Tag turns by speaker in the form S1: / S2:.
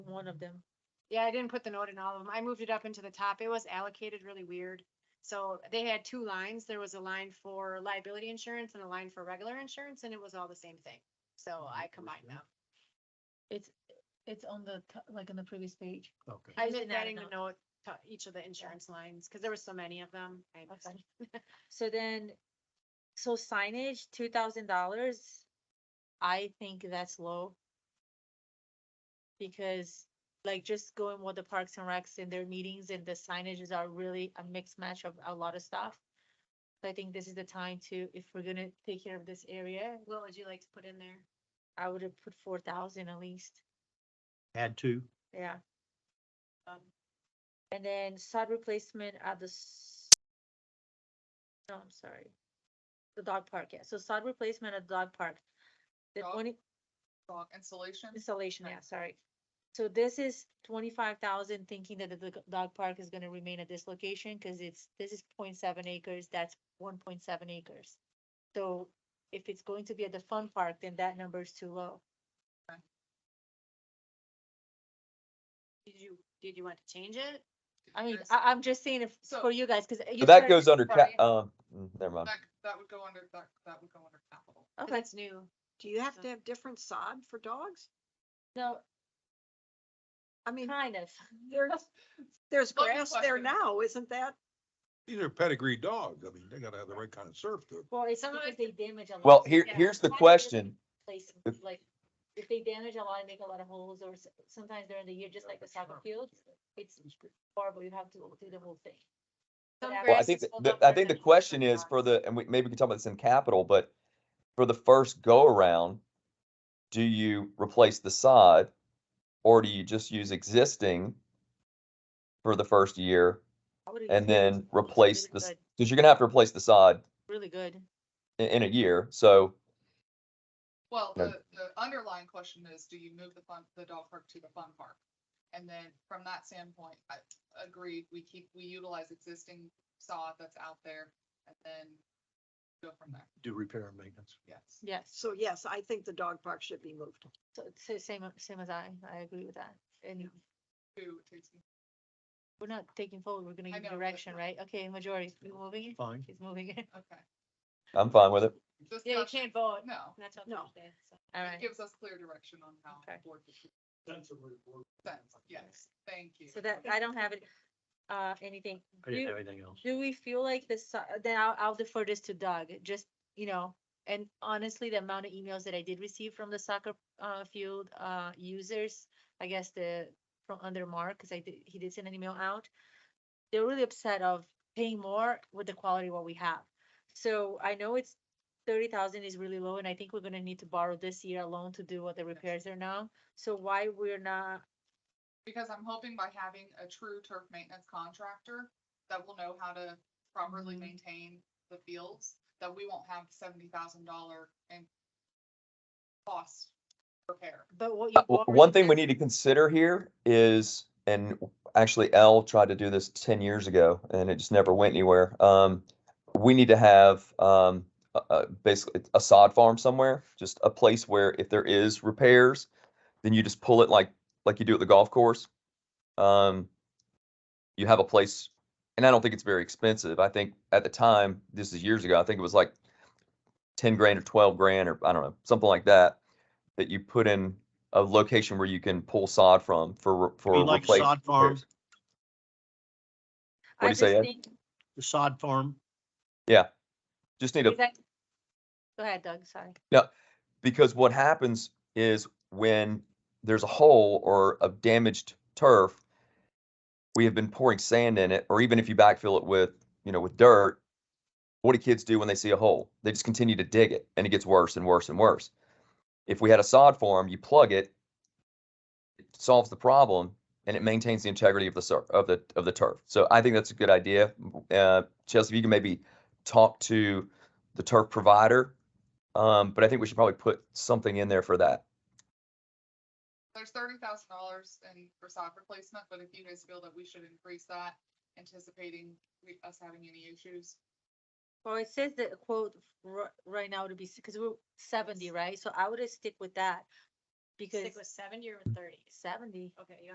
S1: one of them.
S2: Yeah, I didn't put the note in all of them. I moved it up into the top. It was allocated really weird. So they had two lines. There was a line for liability insurance and a line for regular insurance, and it was all the same thing.
S3: Oh,
S4: Oh,
S2: So I combined them.
S1: It's, it's on the, to- like on the previous page.
S3: Okay.
S2: I
S1: You
S2: was
S1: didn't
S2: just
S1: add a
S2: adding the note to each of the insurance lines, because there were so many of them. I just-
S1: Okay. So then, so signage, two thousand dollars, I think that's low. Because like just going with the Parks and Recs and their meetings and the signages are really a mixed match of a lot of stuff. So I think this is the time to, if we're gonna take care of this area,
S2: What would you like to put in there?
S1: I would have put four thousand at least,
S3: Add two.
S1: yeah.
S2: Um,
S1: And then sod replacement at the. s- No, I'm sorry. The dog park, yeah. So sod replacement at the dog park. The
S5: Dog
S1: twenty
S5: Dog installation?
S1: installation,
S5: Okay.
S1: yeah, sorry. So this is twenty-five thousand, thinking that the dog- dog park is gonna remain at this location, cause it's, this is 0.7 acres, that's one point seven acres. So if it's going to be at the fun park, then that number is too low.
S2: Did you, did you want to change it?
S1: I mean,
S5: There's-
S1: I, I'm just saying if,
S5: So-
S1: for you guys, cause. you
S4: But that
S1: started
S4: goes
S1: this
S4: under
S1: part,
S4: cap, um, mm, never mind.
S5: That, that would go under, that, that would go under capital.
S1: yeah.
S2: 'Cause
S1: Okay,
S2: It's new.
S6: Do you have
S2: So-
S6: to have different sod for dogs?
S1: no,
S6: I mean,
S1: kind of.
S6: there's, there's
S5: Loaded
S6: grass there
S5: question.
S6: now, isn't that?
S7: These are pedigree dogs. I mean, they gotta have the right kind of surf to.
S1: Well, it's
S2: Some of
S1: because they damage a lot.
S4: Well,
S1: so
S4: here,
S1: yeah,
S4: here's the
S1: why do they
S4: question.
S1: replace them?
S4: If-
S1: Like, if they damage a lot and make a lot of holes, or s- sometimes during the year, just like the soccer fields, it's horrible, you have to do the whole thing. But
S2: Some
S1: after
S4: Well, I
S2: grass
S4: think,
S2: is
S4: the-
S2: full
S4: the-
S2: up
S4: I
S2: and
S4: think the
S2: then
S4: question
S2: it's
S4: is
S2: gone.
S4: for the, and we, maybe we can talk about this in capital, but for the first go around, do you replace the sod? Or do you just use existing for the first year?
S1: I would've
S4: and
S1: considered
S4: then
S1: something
S4: replace
S1: really
S4: the s-
S1: good-
S4: Cause you're gonna have to replace the sod
S1: Really good.
S4: in, in a year, so
S5: Well,
S4: No.
S5: the, the underlying question is, do you move the fun, the dog park to the fun park? And then from that standpoint, I agreed, we keep, we utilize existing sod that's out there and then go from there,
S3: Do repair and maintenance.
S5: yes.
S1: Yes,
S6: So yes, I think the dog park should be moved.
S1: so, so same, same as I, I agree with that. And
S5: To, to,
S1: we're not taking forward, we're gonna
S5: I
S1: give
S5: know, but-
S1: direction, right? Okay, majority, we moving it?
S3: Fine.
S1: She's moving it.
S5: okay.
S4: I'm fine with it.
S2: Yeah, you
S5: Discussion-
S2: can't vote.
S5: No,
S2: That's what
S6: No.
S2: I'm saying, so.
S1: All
S5: it
S1: right,
S5: gives us clear direction on how.
S1: Okay.
S5: the board would- Sense, yes, thank you.
S1: so that, I don't have it, uh, anything.
S3: I
S1: You-
S3: didn't have anything else.
S1: Do we feel like the, si- then I'll, I'll defer this to Doug, just, you know, and honestly, the amount of emails that I did receive from the soccer, uh, field, uh, users, I guess the, from under Mark, cause I did, he did send an email out. They're really upset of paying more with the quality what we have. So I know it's thirty thousand is really low, and I think we're gonna need to borrow this year alone to do what the repairs are now. So why we're not,
S5: Because I'm hoping by having a true turf maintenance contractor that will know how to properly
S1: Mhm.
S5: maintain the fields, that we won't have seventy thousand dollar in cost repair.
S1: but what
S4: Uh,
S1: you.
S4: w- One thing we need to consider here is, and actually Al tried to do this ten years ago and it just never went anywhere. Um, we need to have, um, a- a- basically a sod farm somewhere, just a place where if there is repairs, then you just pull it like, like you do at the golf course. Um, you have a place, and I don't think it's very expensive. I think at the time, this is years ago, I think it was like ten grand or twelve grand or I don't know, something like that, that you put in a location where you can pull sod from for, re- for.
S3: mean like
S4: replace-
S3: sod farm?
S4: repairs. What'd you say, Ed?
S3: The sod farm,
S4: Just need a
S1: Go ahead, Doug, sorry.
S4: because what happens is when there's a hole or a damaged turf, we have been pouring sand in it, or even if you backfill it with, you know, with dirt, what do kids do when they see a hole? They just continue to dig it and it gets worse and worse and worse. If we had a sod form, you plug it, it solves the problem and it maintains the integrity of the sur- of the of the turf. So I think that's a good idea. Uh, Chelsea, if you can maybe talk to the turf provider um, but I think we should probably put something in there for that.
S5: There's thirty thousand dollars in for sod replacement, but if you guys feel that we should increase that, anticipating we- us having any issues.
S1: Well, it says that quote ri- right now to be, because we're seventy, right? So I would just stick with that.
S2: because
S1: Stick with seventy or with thirty?
S2: seventy.
S1: Okay, you